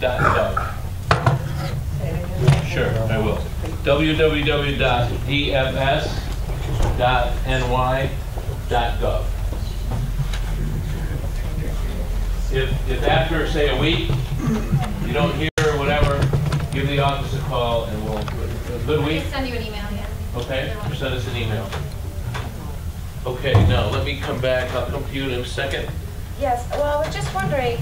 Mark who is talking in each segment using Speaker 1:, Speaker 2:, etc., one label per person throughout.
Speaker 1: www.dot gov. Sure, I will. E www.dfs.ny.gov. If, if after, say, a week, you don't hear or whatever, give the office a call and we'll, a good
Speaker 2: I
Speaker 1: week,
Speaker 2: can send you an email, yeah.
Speaker 1: okay?
Speaker 2: Either one.
Speaker 1: Or send us an email. Okay, now, let me come back, I'll come to you in a second.
Speaker 3: Yes, well, I was just wondering,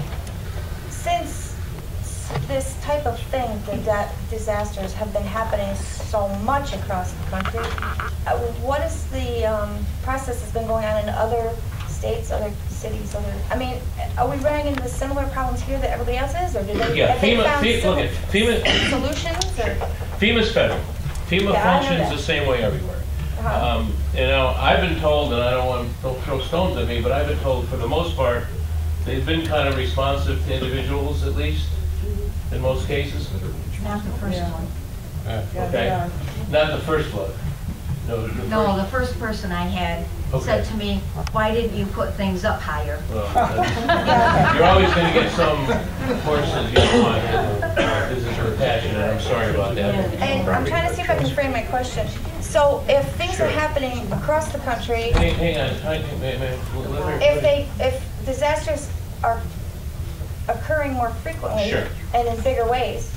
Speaker 3: since s- this type of thing, the da- disasters have been happening so much across the country, uh, what is the um, process that's been going on in other states, other cities, other, I mean, are we running into similar problems here that everybody else is, or do they,
Speaker 1: Yeah,
Speaker 3: have they
Speaker 1: FEMA
Speaker 3: found
Speaker 1: FEMA look at,
Speaker 3: sil-
Speaker 1: FEMA,
Speaker 3: solutions? or-
Speaker 1: FEMA's federal. FEMA
Speaker 3: Yeah, I know
Speaker 1: functions
Speaker 3: that.
Speaker 1: the same way everywhere.
Speaker 3: Uh-huh.
Speaker 1: Um, You know, I've been told, and I don't want to throw stones at me, but I've been told for the most part, they've been kind of responsive to individuals at least, in most cases.
Speaker 4: Not the first one.
Speaker 1: Okay, Not the first flood. No, the first.
Speaker 4: No, the first person I had said
Speaker 1: Okay.
Speaker 4: to me, why didn't you put things up higher?
Speaker 1: well, that's- You're always going to get some horses you don't want. This is compassionate, I'm sorry about that.
Speaker 3: And I'm trying to see if I can frame my question. So if things are
Speaker 1: Sure.
Speaker 3: happening across the country,
Speaker 1: Hang hang on, hang on, may- may- let her-
Speaker 3: If they, if disasters are occurring more frequently
Speaker 1: Sure.
Speaker 3: and in bigger ways,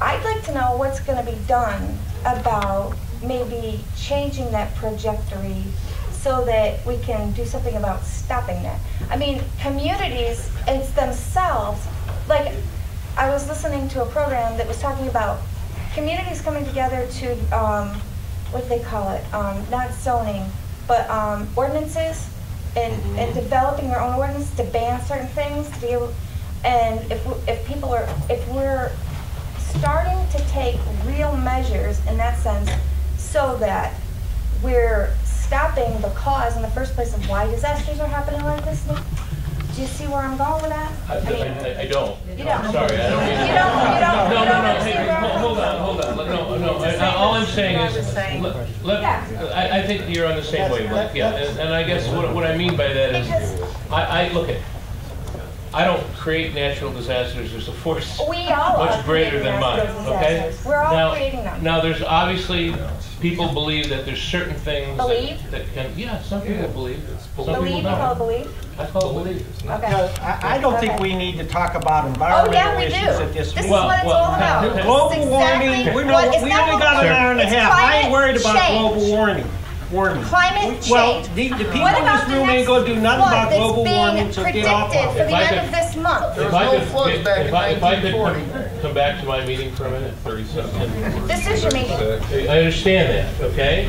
Speaker 3: I'd like to know what's going to be done about maybe changing that trajectory so that we can do something about stopping that. I mean, communities and themselves, like, I was listening to a program that was talking about communities coming together to, um, what do they call it? Um, not zoning, but, um, ordinances and, and developing their own ordinance to ban certain things, to be able, and if, we- if people are, if we're starting to take real measures in that sense so that we're stopping the cause in the first place of why disasters are happening like this. Do you see where I'm going with that?
Speaker 1: I-
Speaker 3: I mean,
Speaker 1: I I- I don't.
Speaker 3: You don't.
Speaker 1: I'm sorry, I don't mean to-
Speaker 3: You don't, you don't,
Speaker 1: No, no,
Speaker 3: you don't
Speaker 1: no, hey,
Speaker 3: understand
Speaker 1: hey,
Speaker 3: where I'm
Speaker 1: ho-
Speaker 3: coming
Speaker 1: hold on, hold on, Let- no, no, I- I- all I'm saying is, let- let-
Speaker 3: Yeah.
Speaker 1: I, I think you're on the same wavelength, yeah, and and I guess what, what I mean by that is,
Speaker 3: Because-
Speaker 1: I, I, look at, I don't create natural disasters, there's a force
Speaker 3: We all are
Speaker 1: much greater
Speaker 3: creating
Speaker 1: than mine,
Speaker 3: natural
Speaker 1: okay?
Speaker 3: disasters. We're all
Speaker 1: Now-
Speaker 3: creating them.
Speaker 1: Now, there's obviously, people believe that there's certain things. that-
Speaker 3: Believe?
Speaker 1: That can, yeah, some people believe, some people
Speaker 3: Believe, you call it
Speaker 1: don't.
Speaker 3: believe?
Speaker 1: I call it believe.
Speaker 3: Okay.
Speaker 5: No, I I don't think we need to talk about
Speaker 3: Oh, yeah,
Speaker 5: environmental
Speaker 3: we
Speaker 5: issues
Speaker 3: do.
Speaker 5: at
Speaker 3: This
Speaker 5: this
Speaker 3: is
Speaker 5: meeting.
Speaker 3: what it's all about.
Speaker 1: Well,
Speaker 3: This
Speaker 5: Global
Speaker 3: is
Speaker 5: warming,
Speaker 3: exactly
Speaker 5: we know,
Speaker 3: what- it's
Speaker 5: we
Speaker 3: not
Speaker 5: only got an
Speaker 3: global
Speaker 5: hour and a
Speaker 3: warming,
Speaker 5: half.
Speaker 3: it's
Speaker 5: I ain't worried about
Speaker 3: climate
Speaker 5: global
Speaker 3: change.
Speaker 5: warming, warming.
Speaker 3: Climate
Speaker 5: Well,
Speaker 3: change.
Speaker 5: the the people
Speaker 3: What
Speaker 5: in
Speaker 3: about
Speaker 5: this
Speaker 3: the
Speaker 5: room
Speaker 3: next
Speaker 5: ain't gonna do nothing
Speaker 3: flood
Speaker 5: about
Speaker 3: that's
Speaker 5: global warming,
Speaker 3: being
Speaker 5: so get off
Speaker 3: predicted
Speaker 5: of
Speaker 3: for the
Speaker 5: it.
Speaker 1: If I
Speaker 3: end
Speaker 1: could-
Speaker 3: of this month?
Speaker 1: If
Speaker 6: was
Speaker 1: I
Speaker 6: no
Speaker 1: could-
Speaker 6: floods
Speaker 1: if
Speaker 6: back in
Speaker 1: I- if I could
Speaker 6: 1940.
Speaker 1: Come back to my meeting for a minute, thirty seconds.
Speaker 3: Decision making.
Speaker 1: I understand that, okay?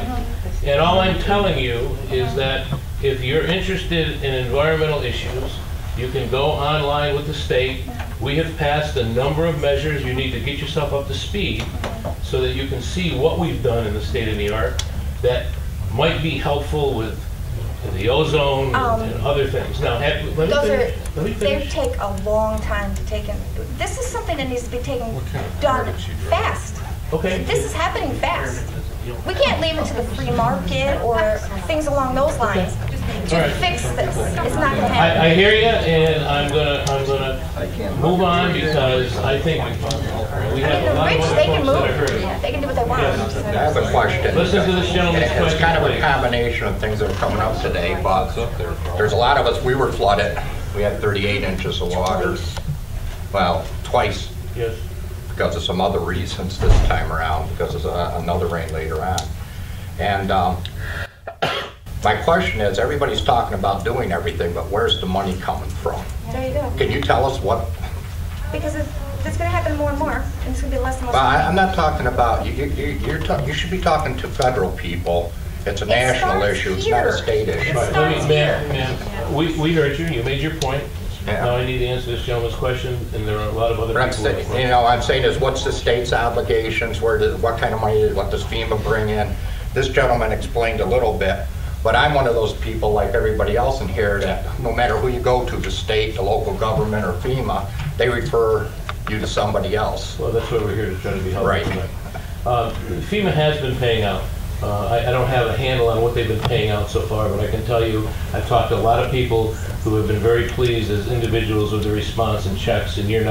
Speaker 1: And all I'm telling you is that if you're interested in environmental issues, you can go online with the state. We have passed a number of measures. You need to get yourself up to speed so that you can see what we've done in the state of New York that might be helpful with the ozone
Speaker 3: Um,
Speaker 1: and other things. Now, have- let me
Speaker 3: Those are,
Speaker 1: finish. Let me
Speaker 3: they
Speaker 1: finish.
Speaker 3: take a long time to take in. This is something that needs to be taken, done fast.
Speaker 1: Okay?
Speaker 3: This is happening fast. We can't leave it to the free market or things along those lines
Speaker 1: All
Speaker 3: to
Speaker 1: right.
Speaker 3: fix this. It's not gonna happen.
Speaker 1: I, I hear you, and I'm gonna, I'm gonna move on because I think we
Speaker 3: I mean,
Speaker 1: have a
Speaker 3: the
Speaker 1: lot of other folks that
Speaker 3: rich, they can
Speaker 1: are hurting.
Speaker 3: move. They can do what they
Speaker 6: Yes.
Speaker 3: want.
Speaker 7: I have a question.
Speaker 1: Listen to this
Speaker 7: And
Speaker 1: gentleman's
Speaker 7: It's kind of a
Speaker 1: question,
Speaker 7: combination of things that are coming up today, but there's a lot of us, we were flooded. We had 38 inches of water. Well, twice
Speaker 1: please. Yes.
Speaker 7: because of some other reasons this time around, because of uh, another rain later on. And um, my question is, everybody's talking about doing everything, but where's the money coming from?
Speaker 3: There you go.
Speaker 7: Can you tell us what
Speaker 3: Because it's, it's gonna happen more and more, and it's gonna be less and less.
Speaker 7: Well, I- I'm not talking about, you, you- you, you're talking, you should be talking to federal people. It's a national
Speaker 3: starts
Speaker 7: issue, it's not a
Speaker 3: here.
Speaker 7: state issue.
Speaker 1: All right, let me- Ma'am, ma'am, we, we heard you, you made your point.
Speaker 7: Yeah.
Speaker 1: Now I need to answer this gentleman's question, and there are a lot of other
Speaker 7: But I'm
Speaker 1: people.
Speaker 7: saying,
Speaker 1: that-
Speaker 7: you know, I'm saying is, what's the state's obligations, where, does- what kind of money, what does FEMA bring in? This gentleman explained a little bit, but I'm one of those people, like everybody else in here, that no matter who you go to, the state, the local government, or FEMA, they refer you to somebody else.
Speaker 1: Well, that's why we're here, to try to be helpful
Speaker 7: Right.
Speaker 1: tonight. Uh, FEMA has been paying out. Uh, I I don't have a handle on what they've been paying out so far, but I can tell you, I've talked to a lot of people who have been very pleased as individuals with the response and checks, and you're not.